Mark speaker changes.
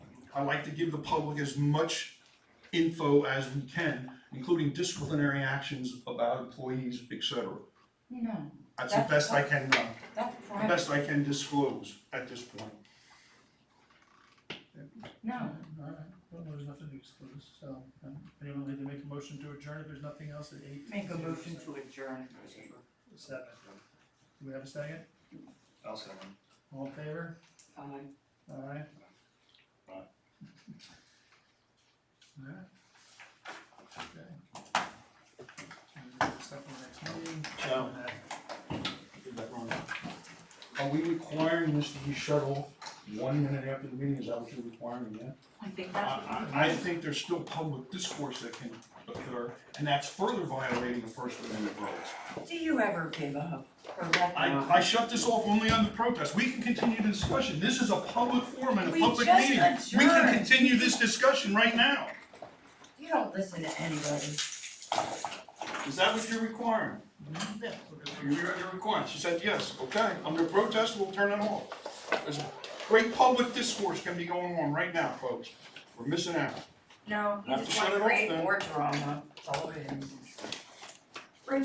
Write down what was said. Speaker 1: I like to give the public as much info as we can, including disciplinary actions about employees, et cetera.
Speaker 2: No,
Speaker 1: That's the best I can, uh,
Speaker 2: that's
Speaker 1: the
Speaker 2: private,
Speaker 1: best I can disclose at this point.
Speaker 2: no.
Speaker 3: Alright, well, there's nothing to exclude, so, um, anyone like to make a motion to adjourn if there's nothing else at eight?
Speaker 2: Make a motion to adjourn.
Speaker 3: Seven. Do we have a second?
Speaker 4: I'll second.
Speaker 3: All in favor?
Speaker 2: Aye.
Speaker 3: Alright.
Speaker 4: Aye.
Speaker 3: Alright. Okay. Stuff for next meeting.
Speaker 1: Joe. Did that wrong. Are we requiring this to be shut off one minute after the meeting, is that what you're requiring, yeah?
Speaker 2: I think that's,
Speaker 1: I, I, I think there's still public discourse that can occur, and that's further violating the First Amendment rights.
Speaker 2: do you ever give up or let
Speaker 1: I,
Speaker 2: go?
Speaker 1: I shut this off only on the protest, we can continue the discussion, this is a public forum and a
Speaker 2: We
Speaker 1: public
Speaker 2: just
Speaker 1: meeting. We can
Speaker 2: adjourned.
Speaker 1: continue this discussion right now,
Speaker 2: You don't listen to anybody.
Speaker 1: is that what you're requiring?
Speaker 3: Yeah.
Speaker 1: You're, you're requiring, she said, yes, okay, I'm gonna protest, we'll turn it off. There's great public discourse can be going on right now, folks, we're missing out.
Speaker 2: No,
Speaker 1: Have
Speaker 2: you
Speaker 1: to
Speaker 2: just
Speaker 1: shut it
Speaker 2: wanna
Speaker 1: off
Speaker 2: create
Speaker 1: then.
Speaker 2: more drama, that's all it is.